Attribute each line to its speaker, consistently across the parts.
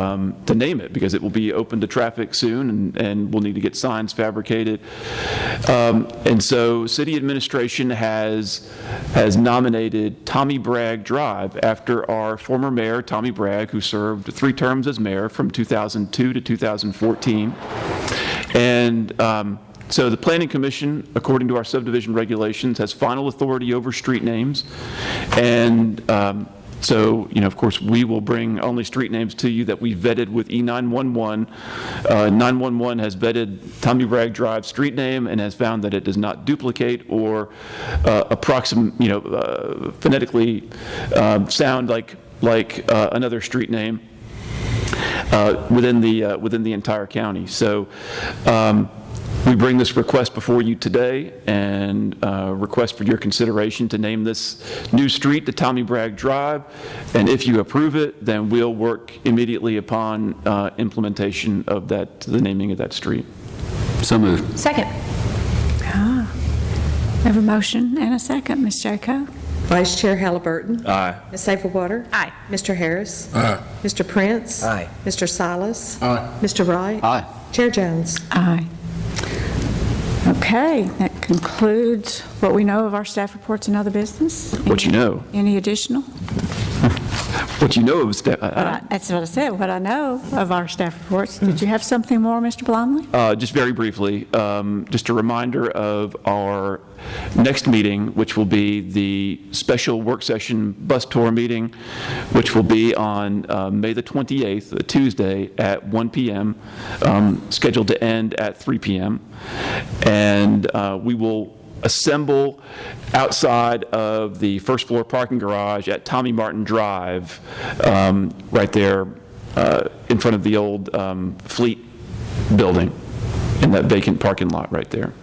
Speaker 1: um, to name it, because it will be open to traffic soon, and- and we'll need to get signs fabricated. Um, And so city administration has, has nominated Tommy Bragg Drive after our former mayor, Tommy Bragg, who served three terms as mayor from 2002 to 2014. And um, so the planning commission, according to our subdivision regulations, has final authority over street names. And um, so, you know, of course, we will bring only street names to you that we vetted with E E911. Uh, 911 has vetted Tommy Bragg Drive street name and has found that it does not duplicate or uh, approxim, you know, uh, phonetically um, sound like, like uh, another street name uh, within the, uh, within the entire county. So um, we bring this request before you today and uh, request for your consideration to name this new street the Tommy Bragg Drive. And if you approve it, then we'll work immediately upon uh, implementation of that, the naming of that street.
Speaker 2: So moved.
Speaker 3: Second.
Speaker 4: I have a motion and a second, Ms. Jaco.
Speaker 5: Vice Chair Halliburton? Aye. Ms. Safelwater?
Speaker 3: Aye.
Speaker 5: Mr. Harris? Aye. Mr. Prince?
Speaker 2: Aye.
Speaker 5: Mr. Silas? Aye. Mr. Wright? Aye. Chair Jones?
Speaker 4: Aye. Okay, that concludes what we know of our staff reports and other business.
Speaker 1: What you know.
Speaker 4: Any additional?
Speaker 1: What you know of, sta- uh,
Speaker 4: Uh, That's what I said, what I know of our staff reports. Did you have something more, Mr. Blomley?
Speaker 1: Uh, Just very briefly, um, just a reminder of our next meeting, which will be the special work session bus tour meeting, which will be on uh, May the 28th, a Tuesday, at 1 PM, um, scheduled to end at 3 PM. And uh, we will assemble outside of the first floor parking garage at Tommy Martin Drive, um, right there uh, in front of the old um, Fleet building in that vacant parking lot right there.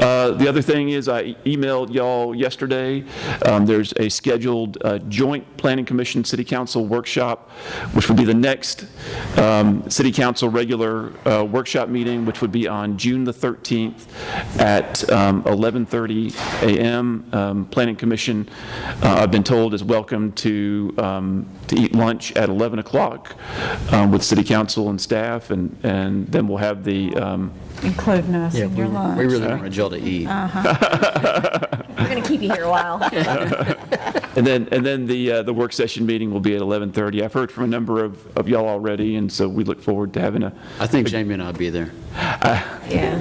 Speaker 1: Uh, The other thing is, I emailed y'all yesterday, um, there's a scheduled uh, joint Planning Commission City Council workshop, which would be the next um, City Council regular uh, workshop meeting, which would be on June the 13th at um, 11:30 a.m. Um, Planning Commission, uh, I've been told, is welcome to, um, to eat lunch at 11 o'clock um, with City Council and staff, and, and then we'll have the, um,
Speaker 4: Including us in your lunch.
Speaker 2: We really want Jill to eat.
Speaker 3: We're going to keep you here a while.
Speaker 1: and then, and then the, uh, the work session meeting will be at 11:30. I've heard from a number of, of y'all already, and so we look forward to having a,
Speaker 2: I think Jamie and I'll be there.
Speaker 3: Yeah.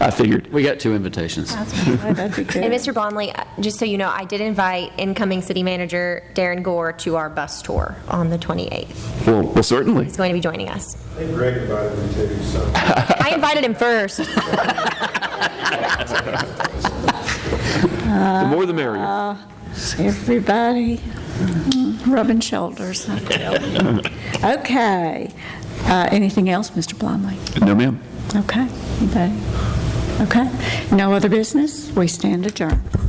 Speaker 1: I figured,
Speaker 2: We got two invitations.
Speaker 4: That'd be
Speaker 3: And
Speaker 4: good.
Speaker 3: Mr. Blomley, uh, just so you know, I did invite incoming city manager Darren Gore to our bus tour on the 28th.
Speaker 1: well, well, certainly.
Speaker 3: He's going to be joining us.
Speaker 6: I think Greg invited me too, so.
Speaker 3: I invited him first.
Speaker 1: The more the merrier.
Speaker 4: Everybody rubbing shoulders, I tell you. Okay. Uh, Anything else, Mr. Blomley?
Speaker 1: No, ma'am.
Speaker 4: Okay, anybody? Okay, no other business? We stand adjourned.